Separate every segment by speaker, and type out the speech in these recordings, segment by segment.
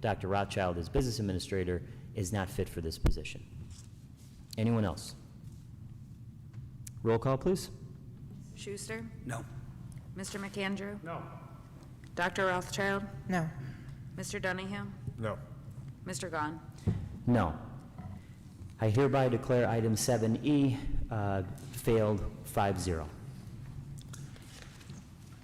Speaker 1: Dr. Rothschild as business administrator is not fit for this position. Anyone else? Roll call, please.
Speaker 2: Schuster?
Speaker 3: No.
Speaker 2: Mr. McAndrew?
Speaker 4: No.
Speaker 2: Dr. Rothschild?
Speaker 5: No.
Speaker 2: Mr. Dunningham?
Speaker 4: No.
Speaker 2: Mr. Gahn?
Speaker 1: No. I hereby declare item 7E uh, failed 5-0.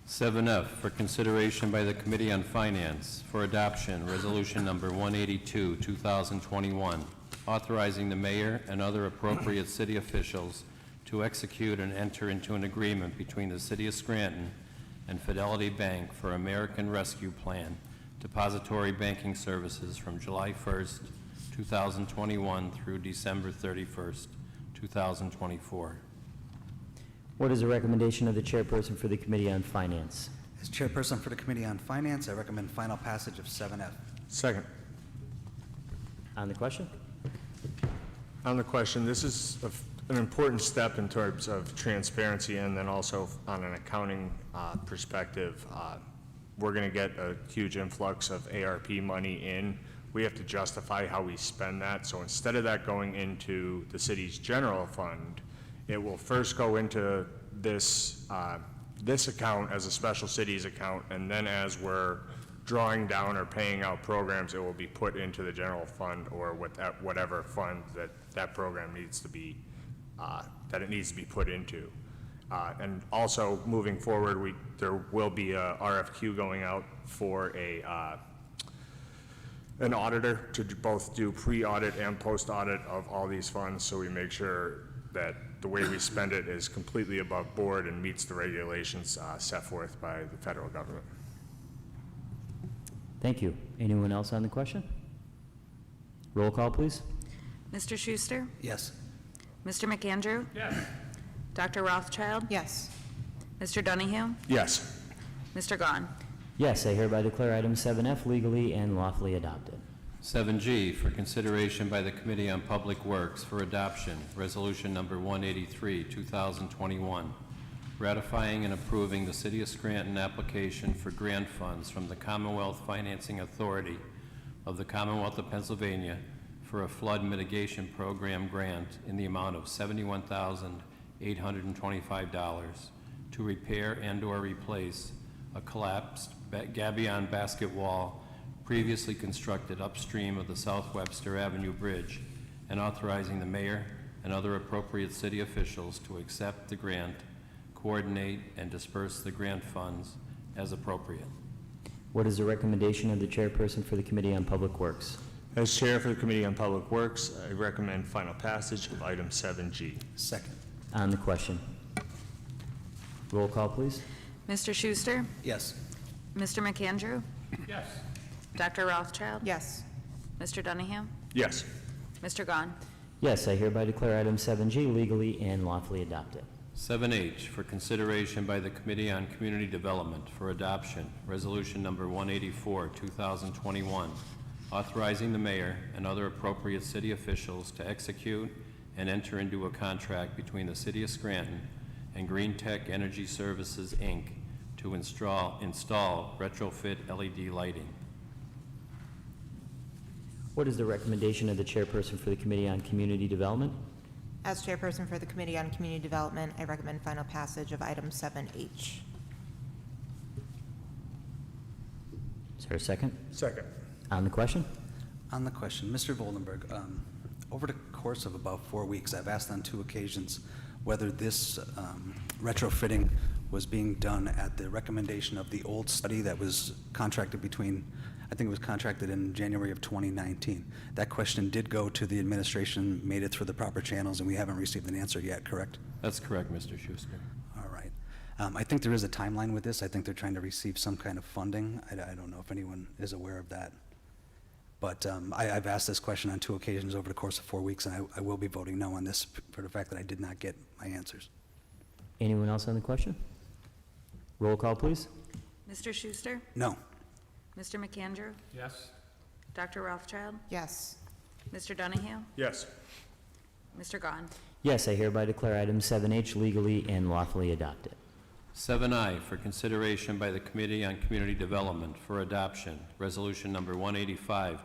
Speaker 6: 7F for consideration by the Committee on Finance for adoption, Resolution Number 182, 2021, authorizing the mayor and other appropriate city officials to execute and enter into an agreement between the City of Scranton and Fidelity Bank for American Rescue Plan depository banking services from July 1st, 2021 through December 31st, 2024.
Speaker 1: What is the recommendation of the chairperson for the Committee on Finance?
Speaker 3: As chairperson for the Committee on Finance, I recommend final passage of 7F.
Speaker 4: Second.
Speaker 1: On the question?
Speaker 4: On the question, this is a f- an important step in terms of transparency and then also on an accounting uh, perspective. uh, We're going to get a huge influx of ARP money in. We have to justify how we spend that. So instead of that going into the city's general fund, it will first go into this, uh, this account as a special cities account. And then as we're drawing down or paying out programs, it will be put into the general fund or with that, whatever fund that that program needs to be, uh, that it needs to be put into. Uh, And also, moving forward, we, there will be a RFQ going out for a, uh, an auditor to do- both do pre-audit and post-audit of all these funds, so we make sure that the way we spend it is completely above board and meets the regulations uh, set forth by the federal government.
Speaker 1: Thank you. Anyone else on the question? Roll call, please.
Speaker 2: Mr. Schuster?
Speaker 3: Yes.
Speaker 2: Mr. McAndrew? Yes. Dr. Rothschild?
Speaker 5: Yes.
Speaker 2: Mr. Dunningham?
Speaker 4: Yes.
Speaker 2: Mr. Gahn?
Speaker 1: Yes, I hereby declare item 7F legally and lawfully adopted.
Speaker 6: 7G for consideration by the Committee on Public Works for adoption, Resolution Number 183, 2021, ratifying and approving the City of Scranton application for grant funds from the Commonwealth Financing Authority of the Commonwealth of Pennsylvania for a flood mitigation program grant in the amount of $71,825 to repair and/or replace a collapsed ba- gabion basket wall previously constructed upstream of the South Webster Avenue Bridge, and authorizing the mayor and other appropriate city officials to accept the grant, coordinate, and disperse the grant funds as appropriate.
Speaker 1: What is the recommendation of the chairperson for the Committee on Public Works?
Speaker 4: As Chair for the Committee on Public Works, I recommend final passage of item 7G.
Speaker 3: Second.
Speaker 1: On the question? Roll call, please.
Speaker 2: Mr. Schuster?
Speaker 3: Yes.
Speaker 2: Mr. McAndrew?
Speaker 4: Yes.
Speaker 2: Dr. Rothschild?
Speaker 5: Yes.
Speaker 2: Mr. Dunningham?
Speaker 4: Yes.
Speaker 2: Mr. Gahn?
Speaker 1: Yes, I hereby declare item 7G legally and lawfully adopted.
Speaker 6: 7H for consideration by the Committee on Community Development for adoption, Resolution Number 184, 2021, authorizing the mayor and other appropriate city officials to execute and enter into a contract between the City of Scranton and Green Tech Energy Services, Inc., to install install retrofit LED lighting.
Speaker 1: What is the recommendation of the chairperson for the Committee on Community Development?
Speaker 5: As chairperson for the Committee on Community Development, I recommend final passage of item 7H.
Speaker 1: Is there a second?
Speaker 4: Second.
Speaker 1: On the question?
Speaker 3: On the question, Mr. Voldenberg, um, over the course of about four weeks, I've asked on two occasions whether this um, retrofitting was being done at the recommendation of the old study that was contracted between, I think it was contracted in January of 2019. That question did go to the administration, made it through the proper channels, and we haven't received an answer yet, correct?
Speaker 6: That's correct, Mr. Schuster.
Speaker 3: All right. Um, I think there is a timeline with this. I think they're trying to receive some kind of funding. I, I don't know if anyone is aware of that. But um, I, I've asked this question on two occasions over the course of four weeks, and I, I will be voting no on this for the fact that I did not get my answers.
Speaker 1: Anyone else on the question? Roll call, please.
Speaker 2: Mr. Schuster?
Speaker 3: No.
Speaker 2: Mr. McAndrew?
Speaker 6: Yes.
Speaker 2: Dr. Rothschild?
Speaker 5: Yes.
Speaker 2: Mr. Dunningham?
Speaker 4: Yes.
Speaker 2: Mr. Gahn?
Speaker 1: Yes, I hereby declare item 7H legally and lawfully adopted.
Speaker 6: Seven I, for consideration by the Committee on Community Development for Adoption, Resolution Number 185,